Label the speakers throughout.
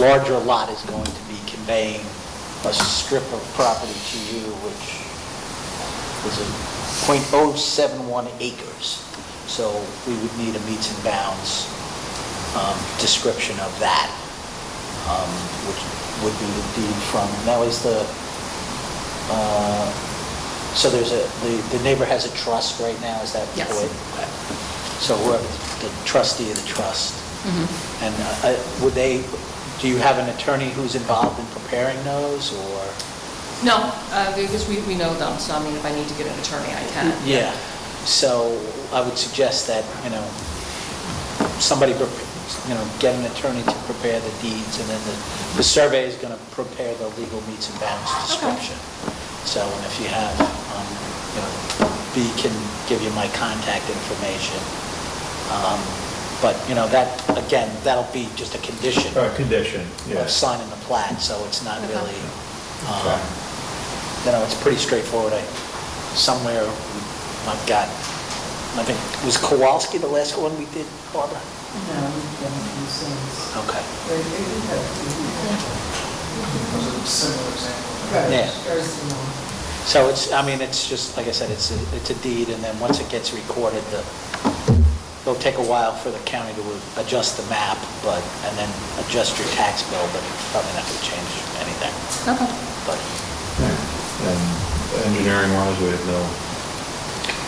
Speaker 1: larger lot is going to be conveying a strip of property to you, which is a .071 acres. So we would need a meets and bounds um, description of that, um, which would be the deed from, and that was the, uh, so there's a, the the neighbor has a trust right now, is that the
Speaker 2: Yes.
Speaker 1: way? So we're the trustee of the trust.
Speaker 2: Mm-hmm.
Speaker 1: And uh, I- would they, do you have an attorney who's involved in preparing those, or?
Speaker 2: No, uh, because we, we know them, so I mean, if I need to get an attorney, I can.
Speaker 1: Yeah, so I would suggest that, you know, somebody, prep- you know, get an attorney to prepare the deeds, and then the, the survey is going to prepare the legal meets and bounds description. So, and if you have, um, you know, B can give you my contact information. Um, But, you know, that, again, that'll be just a condition
Speaker 3: Uh, Condition,
Speaker 1: of
Speaker 3: yes.
Speaker 1: signing the plat, so it's not
Speaker 2: Okay.
Speaker 1: really, um,
Speaker 3: Okay.
Speaker 1: you know, it's pretty straightforward. I Somewhere, I've got, I think, was Kowalski the last one we did, Barbara?
Speaker 4: No, we've done a few things.
Speaker 1: Okay.
Speaker 4: But it would have to be-
Speaker 5: was a similar example.
Speaker 4: Right,
Speaker 1: Yeah.
Speaker 4: very similar.
Speaker 1: So it's, I mean, it's just, like I said, it's, a- it's a deed, and then once it gets recorded, the, it'll take a while for the county to adjust the map, but, and then adjust your tax bill, but it's probably not going to change anything,
Speaker 2: Okay.
Speaker 1: but,
Speaker 3: And engineering wise, we have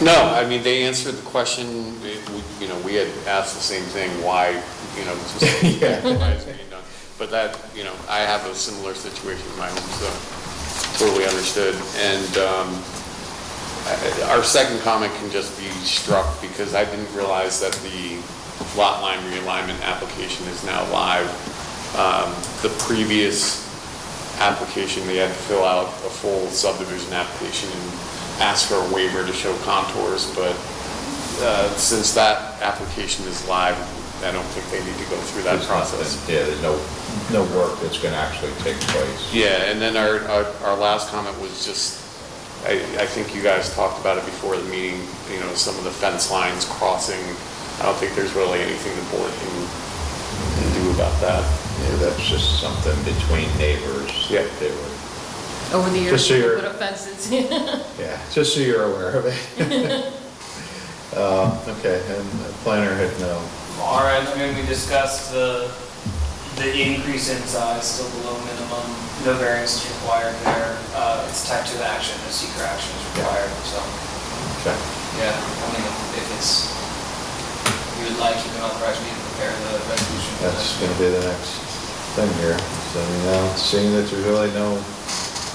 Speaker 3: no,
Speaker 6: No, I mean, they answered the question, it- we- you know, we had asked the same thing, why, you know, this was-
Speaker 3: Yeah.
Speaker 6: why it's being done. But that, you know, I have a similar situation in my home, so totally understood. And um, I- our second comment can just be struck because I didn't realize that the lot line realignment application is now live. Um, The previous application, they had to fill out a full subdivision application and ask for a waiver to show contours, but uh, since that application is live, I don't think they need to go through that
Speaker 3: there's
Speaker 6: process.
Speaker 3: nothing, yeah, there's no, no work that's going to actually take place.
Speaker 6: Yeah, and then our, our, our last comment was just, I, I think you guys talked about it before the meeting, you know, some of the fence lines crossing. I don't think there's really anything the board can can do about that.
Speaker 3: Yeah, that's just something between neighbors.
Speaker 6: Yeah.
Speaker 3: that They were,
Speaker 2: Over the years,
Speaker 3: Just so
Speaker 2: we
Speaker 3: you're-
Speaker 2: put up fences. Yeah,
Speaker 3: yeah, just so you're aware of it. Um, Okay, and the planner had no,
Speaker 5: All right, I mean, we discussed the, the increase in size, still below minimum, no variance is required there. Uh, It's type two action, no secret action is required, so,
Speaker 3: okay.
Speaker 5: yeah, I mean, if it's, you would like, you can authorize me to prepare the resolution.
Speaker 3: That's going to be the next thing here. So, you know, seeing that there's really no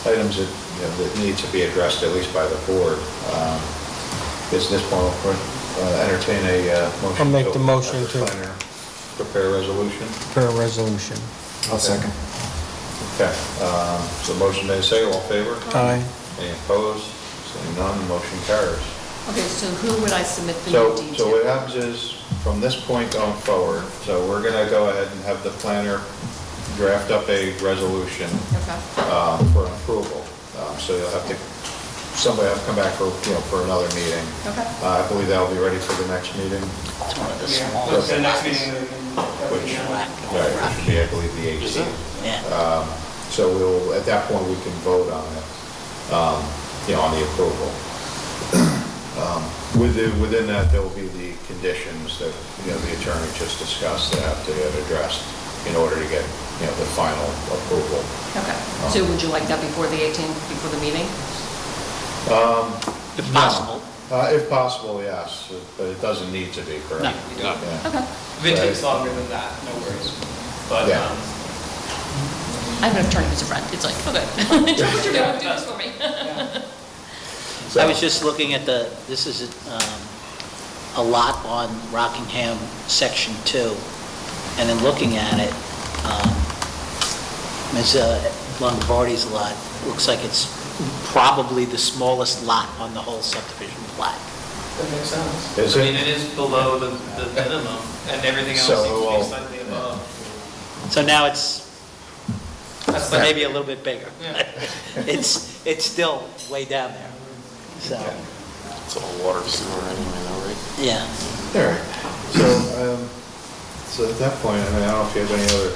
Speaker 3: items that, you know, that need to be addressed, at least by the board, um, is this point, uh, entertain a uh, motion.
Speaker 7: I'll make
Speaker 3: to
Speaker 7: the motion
Speaker 3: have the
Speaker 7: to-
Speaker 3: planner Prepare a resolution.
Speaker 7: per resolution.
Speaker 3: I'll second. Okay, um, so motion made, second, all in favor?
Speaker 7: Aye.
Speaker 3: Any opposed? Seeing none, motion carries.
Speaker 2: Okay, so who would I submit the
Speaker 3: So,
Speaker 2: new deed to?
Speaker 3: so what happens is, from this point going forward, so we're gonna go ahead and have the planner draft up a resolution
Speaker 2: Okay,
Speaker 3: uh, for approval. Um, So you'll have to, somebody will come back for, you know, for another meeting.
Speaker 2: Okay.
Speaker 3: Uh, I believe that'll be ready for the next meeting,
Speaker 1: it's one of the
Speaker 5: Yeah,
Speaker 1: small,
Speaker 5: the next meeting, we can-
Speaker 3: which,
Speaker 1: Right.
Speaker 3: right, which should be, I believe, the 18th.
Speaker 1: yeah.
Speaker 3: So we'll, at that point, we can vote on it, um, you know, on the approval. Um, Within, within that, there will be the conditions that, you know, the attorney just discussed that have to get addressed in order to get, you know, the final approval. Oh.
Speaker 2: okay. So would you like that before the 18th, before the meeting?
Speaker 3: Mm-hmm.
Speaker 1: If possible.
Speaker 3: Uh, If possible, yes, but it doesn't need to be, correct?
Speaker 6: No.
Speaker 3: Yeah.
Speaker 2: Okay.
Speaker 5: If it takes longer than that, no worries. But,
Speaker 3: Yeah.
Speaker 5: um,
Speaker 2: I have an attorney who's a friend, it's like, okay, do what you're doing, do this for me.
Speaker 1: I was just looking at the, this is um, a lot on Rockingham, Section 2, and then looking at it, um, Ms. Longobardi's lot, looks like it's probably the smallest lot on the whole subdivision plat.
Speaker 4: That makes sense.
Speaker 3: Is
Speaker 5: I mean, it
Speaker 3: it?
Speaker 5: is below the, the minimum, and everything else
Speaker 3: So,
Speaker 5: seems to
Speaker 3: well,
Speaker 5: be slightly above.
Speaker 1: So now it's
Speaker 5: That's like-
Speaker 1: maybe a little bit bigger.
Speaker 5: Yeah.
Speaker 1: It's, it's still way down there, so,
Speaker 6: It's all water sewer anyway, though, right?
Speaker 1: yeah.
Speaker 3: All right. So, um, so at that point, I mean, I don't know if you have any other